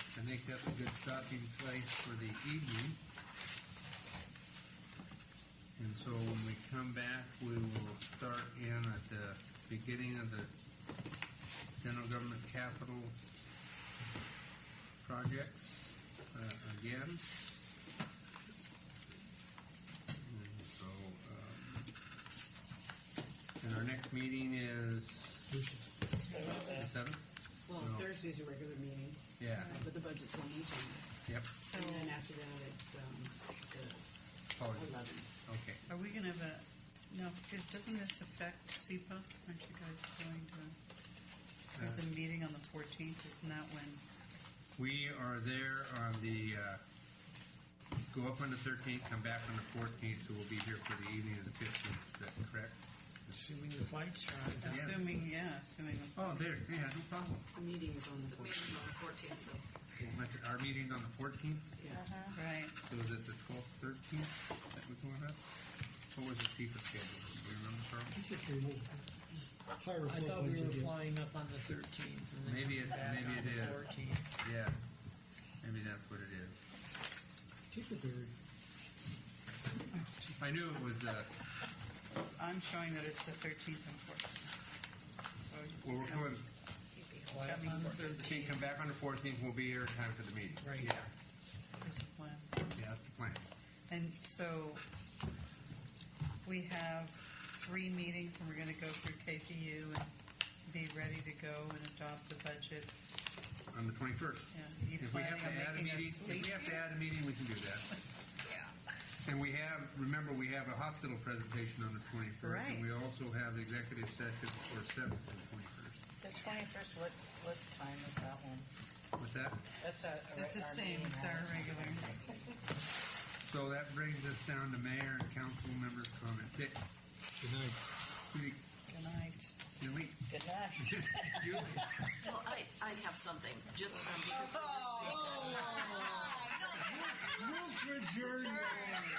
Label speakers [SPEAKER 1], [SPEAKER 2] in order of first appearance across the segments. [SPEAKER 1] a good stopping place for the evening. And so when we come back, we will start in at the beginning of the general government capital projects uh, again. And so, um, and our next meeting is the seventh?
[SPEAKER 2] Well,
[SPEAKER 1] No.
[SPEAKER 2] Thursday's a regular meeting,
[SPEAKER 1] Yeah,
[SPEAKER 2] uh, but the budget's on each end.
[SPEAKER 1] yep,
[SPEAKER 2] And then after that, it's um, the
[SPEAKER 1] Oh,
[SPEAKER 2] eleventh.
[SPEAKER 1] okay.
[SPEAKER 3] Are we gonna have a, no, because doesn't this affect SEPA? Aren't you guys going to,
[SPEAKER 1] Uh,
[SPEAKER 3] there's a meeting on the fourteenth, isn't that when?
[SPEAKER 1] We are there on the, uh, go up on the 13th, come back on the 14th, so we'll be here for the evening of the 15th, is that correct?
[SPEAKER 4] Assuming the flights are on time.
[SPEAKER 3] Assuming, yeah, assuming.
[SPEAKER 1] Oh, there, yeah, no problem.
[SPEAKER 2] The meeting is on the fourteenth.
[SPEAKER 5] on the fourteenth, though.
[SPEAKER 1] That's- Our meeting's on the 14th,
[SPEAKER 2] Yes.
[SPEAKER 6] Uh-huh.
[SPEAKER 3] Right,
[SPEAKER 1] so is it the 12th, 13th that we're going up? What was the FIFA schedule, do you remember, Carl?
[SPEAKER 4] It's a three move. Just
[SPEAKER 7] I
[SPEAKER 4] Hire a float
[SPEAKER 7] thought we
[SPEAKER 4] once
[SPEAKER 7] were
[SPEAKER 4] again.
[SPEAKER 7] flying up on the thirteenth and then
[SPEAKER 1] Maybe it-
[SPEAKER 7] back
[SPEAKER 1] maybe
[SPEAKER 7] on
[SPEAKER 1] it
[SPEAKER 7] the
[SPEAKER 1] is.
[SPEAKER 7] fourteenth.
[SPEAKER 1] Yeah, maybe that's what it is.
[SPEAKER 4] Take the ferry.
[SPEAKER 1] I knew it was the,
[SPEAKER 3] I'm showing that it's the thirteenth and fourteenth. So
[SPEAKER 1] well, we're coming,
[SPEAKER 7] Fly up on the
[SPEAKER 1] can't
[SPEAKER 7] thirteenth.
[SPEAKER 1] come back on the 14th, we'll be here in time for the meeting.
[SPEAKER 7] Right.
[SPEAKER 1] Yeah,
[SPEAKER 3] there's a plan.
[SPEAKER 1] yeah, that's the plan.
[SPEAKER 3] And so we have three meetings and we're gonna go through KPU and be ready to go and adopt the budget.
[SPEAKER 1] On the 21st.
[SPEAKER 3] Yeah, you
[SPEAKER 1] If we have
[SPEAKER 3] planning
[SPEAKER 1] to
[SPEAKER 3] on
[SPEAKER 1] add a
[SPEAKER 3] making us
[SPEAKER 1] meeting, if
[SPEAKER 3] sleep
[SPEAKER 1] we have to
[SPEAKER 3] here?
[SPEAKER 1] add a meeting, we can do that. And we have, remember, we have a hospital presentation on the twenty-first.
[SPEAKER 3] Right.
[SPEAKER 1] And we also have the executive session for seventh and twenty-first.
[SPEAKER 6] The twenty-first, what, what time is that one?
[SPEAKER 1] With that,
[SPEAKER 6] That's a. a
[SPEAKER 3] That's the
[SPEAKER 6] our
[SPEAKER 3] same,
[SPEAKER 6] meeting,
[SPEAKER 3] it's
[SPEAKER 6] right?
[SPEAKER 3] our regular.
[SPEAKER 1] so that brings us down to mayor and council members' comment. Dick,
[SPEAKER 4] Good night.
[SPEAKER 1] Judy,
[SPEAKER 3] Good night.
[SPEAKER 1] Julie,
[SPEAKER 6] Good night.
[SPEAKER 1] Julie.
[SPEAKER 5] Well, I, I have something, just um, because we were saying-
[SPEAKER 4] Move for adjournment.
[SPEAKER 5] Guys,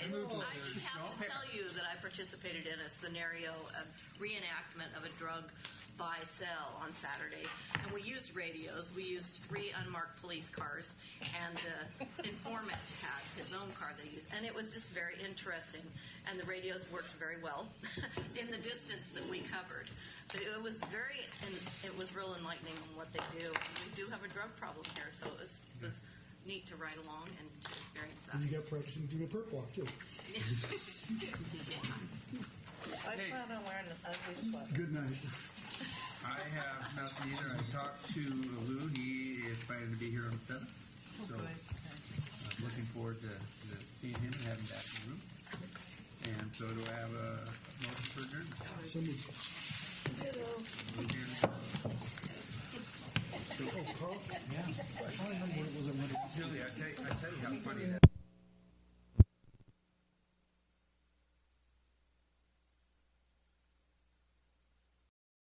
[SPEAKER 5] I just have to tell you that I participated in a scenario of reenactment of a drug buy sell on Saturday, and we used radios. We used three unmarked police cars, and the informant had his own car that he used, and it was just very interesting. And the radios worked very well in the distance that we covered. But it was very, and it was real enlightening on what they do. And we do have a drug problem here, so it was, it was neat to ride along and to experience that.
[SPEAKER 4] And you got practicing doing a perp walk too.
[SPEAKER 6] I
[SPEAKER 1] Hey.
[SPEAKER 6] plan on wearing an ugly sweater.
[SPEAKER 4] Good night.
[SPEAKER 1] I have nothing either. I talked to Lou. He is planning to be here on the seventh.
[SPEAKER 3] Oh,
[SPEAKER 1] So-
[SPEAKER 3] good. Okay.
[SPEAKER 1] I'm looking forward to to seeing him and having him back in the room. And so do I have a motion for adjournment?
[SPEAKER 4] So moved. Oh, Carl? Yeah. I finally know what it was I wanted.
[SPEAKER 1] Julie, I tell you, I tell you how funny that